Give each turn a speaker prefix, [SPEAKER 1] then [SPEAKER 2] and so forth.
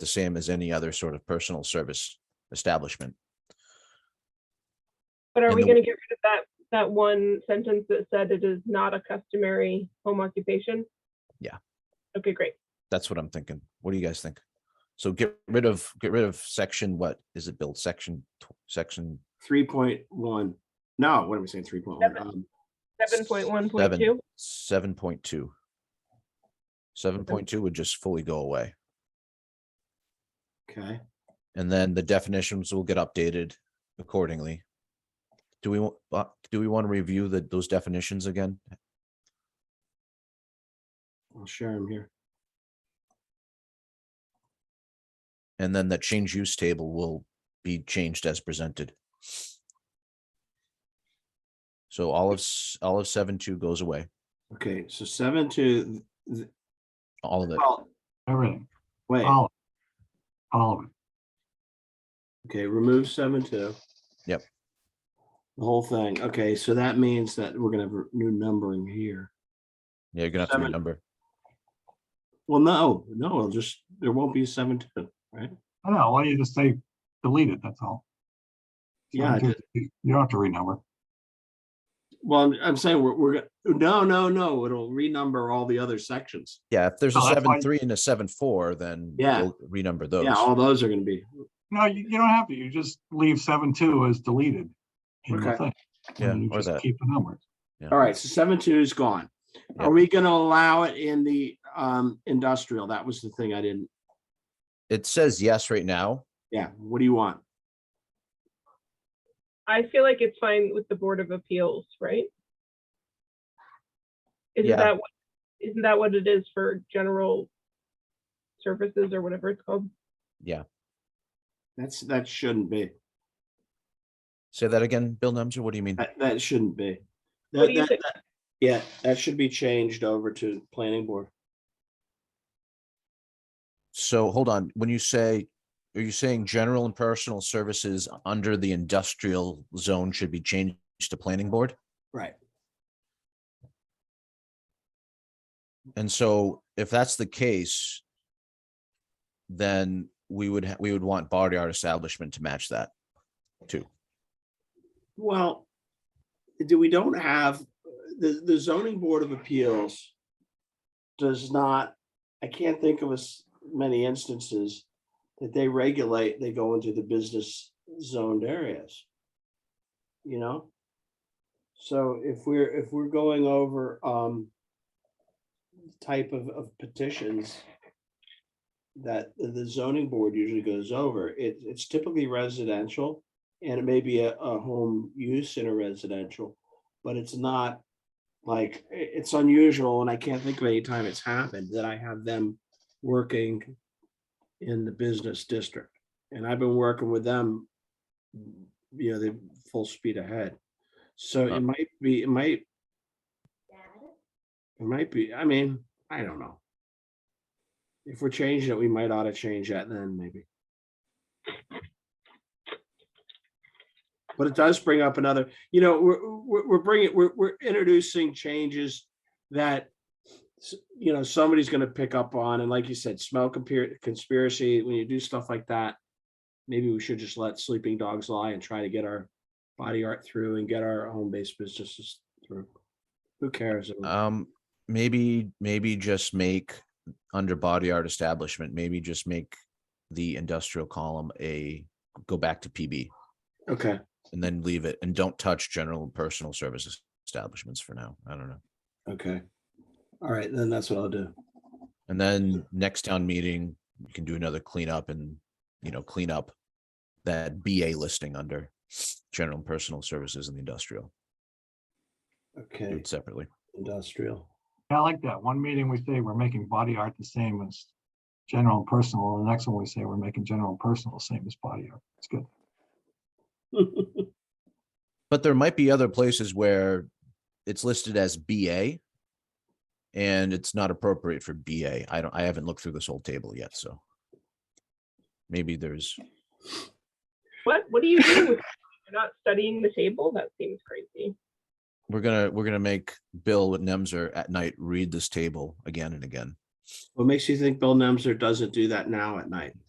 [SPEAKER 1] the same as any other sort of personal service establishment.
[SPEAKER 2] But are
[SPEAKER 1] in
[SPEAKER 2] we
[SPEAKER 1] the-
[SPEAKER 2] gonna get rid of that, that one sentence that said it is not a customary home occupation?
[SPEAKER 1] Yeah.
[SPEAKER 2] Okay, great.
[SPEAKER 1] That's what I'm thinking. What do you guys think? So get rid of, get rid of section, what is it, Build Section, tw- section
[SPEAKER 3] three point one. No, what am I saying? Three point one.
[SPEAKER 2] Seven.
[SPEAKER 3] Um,
[SPEAKER 2] Seven point one point
[SPEAKER 1] seven,
[SPEAKER 2] two,
[SPEAKER 1] seven point two? Seven point two would just fully go away.
[SPEAKER 3] okay.
[SPEAKER 1] And then the definitions will get updated accordingly. Do we, wa- uh, do we want to review the, those definitions again?
[SPEAKER 3] I'll share them here.
[SPEAKER 1] And then the change use table will be changed as presented. So all of, s- all of seven two goes away,
[SPEAKER 3] Okay, so seven to, th-
[SPEAKER 1] all of it.
[SPEAKER 3] well,
[SPEAKER 4] Everything,
[SPEAKER 3] wait,
[SPEAKER 4] all, all of it.
[SPEAKER 3] okay, remove seven two.
[SPEAKER 1] Yep.
[SPEAKER 3] The whole thing. Okay, so that means that we're gonna have a new numbering here.
[SPEAKER 1] Yeah, you're gonna have to
[SPEAKER 3] Seven.
[SPEAKER 1] renumber.
[SPEAKER 3] Well, no, no, it'll just, there won't be a seven two, right?
[SPEAKER 4] I know, why don't you just say delete it, that's all.
[SPEAKER 3] Yeah, I
[SPEAKER 4] You don't have to renumber.
[SPEAKER 3] Well, I'm, I'm saying we're, we're, go- no, no, no, it'll renumber all the other sections.
[SPEAKER 1] Yeah, if there's a
[SPEAKER 4] Oh, that's
[SPEAKER 1] seven
[SPEAKER 4] fine.
[SPEAKER 1] three and a seven four, then
[SPEAKER 3] Yeah.
[SPEAKER 1] we'll renumber those.
[SPEAKER 3] Yeah, oh, all those are gonna be,
[SPEAKER 4] No, you, you don't have to, you just leave seven two as deleted. in the
[SPEAKER 3] Okay.
[SPEAKER 4] thing, and
[SPEAKER 1] Yeah,
[SPEAKER 4] then you
[SPEAKER 1] or
[SPEAKER 4] just
[SPEAKER 1] that.
[SPEAKER 4] Keep the numbers.
[SPEAKER 3] all right, so seven two is gone.
[SPEAKER 1] Yeah.
[SPEAKER 3] Are we gonna allow it in the, um, industrial? That was the thing I didn't
[SPEAKER 1] It says yes right now.
[SPEAKER 3] Yeah, what do you want?
[SPEAKER 2] I feel like it's fine with the Board of Appeals, right?
[SPEAKER 1] Yeah.
[SPEAKER 2] Isn't that, what- isn't that what it is for general services or whatever it's called?
[SPEAKER 3] That's, that shouldn't be,
[SPEAKER 1] Say that again, Bill Nemser, what do you mean?
[SPEAKER 3] that, that shouldn't be.
[SPEAKER 2] What
[SPEAKER 3] That-
[SPEAKER 2] do you
[SPEAKER 3] that-
[SPEAKER 2] think?
[SPEAKER 3] that- Yeah, that should be changed over to planning board.
[SPEAKER 1] So hold on, when you say, are you saying general and personal services under the industrial zone should be changed to planning board?
[SPEAKER 3] Right.
[SPEAKER 1] And so if that's the case, then we would, ha- we would want body art establishment to match that.
[SPEAKER 3] Well, do, we don't have, the, the zoning board of appeals does not, I can't think of as many instances that they regulate, they go into the business zoned areas. You know? So if we're, if we're going over, um, type of, of petitions that the zoning board usually goes over, it, it's typically residential. And it may be a, a home use in a residential, but it's not like, i- it's unusual and I can't think of any time it's happened that I have them working in the business district. And I've been working with them, you know, they're full speed ahead. So
[SPEAKER 1] Uh.
[SPEAKER 3] it might be, it might it might be, I mean, I don't know. If we're changing it, we might ought to change that then maybe. But it does bring up another, you know, we're, we're, we're bringing, we're, we're introducing changes that, s- you know, somebody's gonna pick up on, and like you said, smell compar- conspiracy, when you do stuff like that, maybe we should just let sleeping dogs lie and try to get our body art through and get our home-based businesses through. Who cares?
[SPEAKER 1] Um, maybe, maybe just make under body art establishment, maybe just make the industrial column a, go back to PB
[SPEAKER 3] Okay.
[SPEAKER 1] and then leave it and don't touch general and personal services establishments for now. I don't know.
[SPEAKER 3] Okay. All right, then that's what I'll do.
[SPEAKER 1] And then next town meeting, you can do another cleanup and, you know, clean up that BA listing under general and personal services and the industrial, do
[SPEAKER 3] Okay,
[SPEAKER 1] it separately.
[SPEAKER 3] industrial.
[SPEAKER 4] I like that. One meeting we say we're making body art the same as general and personal, and the next one we say we're making general and personal the same as body art. It's good.
[SPEAKER 1] But there might be other places where it's listed as BA and it's not appropriate for BA. I don't, I haven't looked through this whole table yet, so maybe there's,
[SPEAKER 2] What, what do you do with, you're not studying the table? That seems crazy.
[SPEAKER 1] we're gonna, we're gonna make Bill with Nemser at night read this table again and again.
[SPEAKER 3] What makes you think Bill Nemser doesn't do that now at night?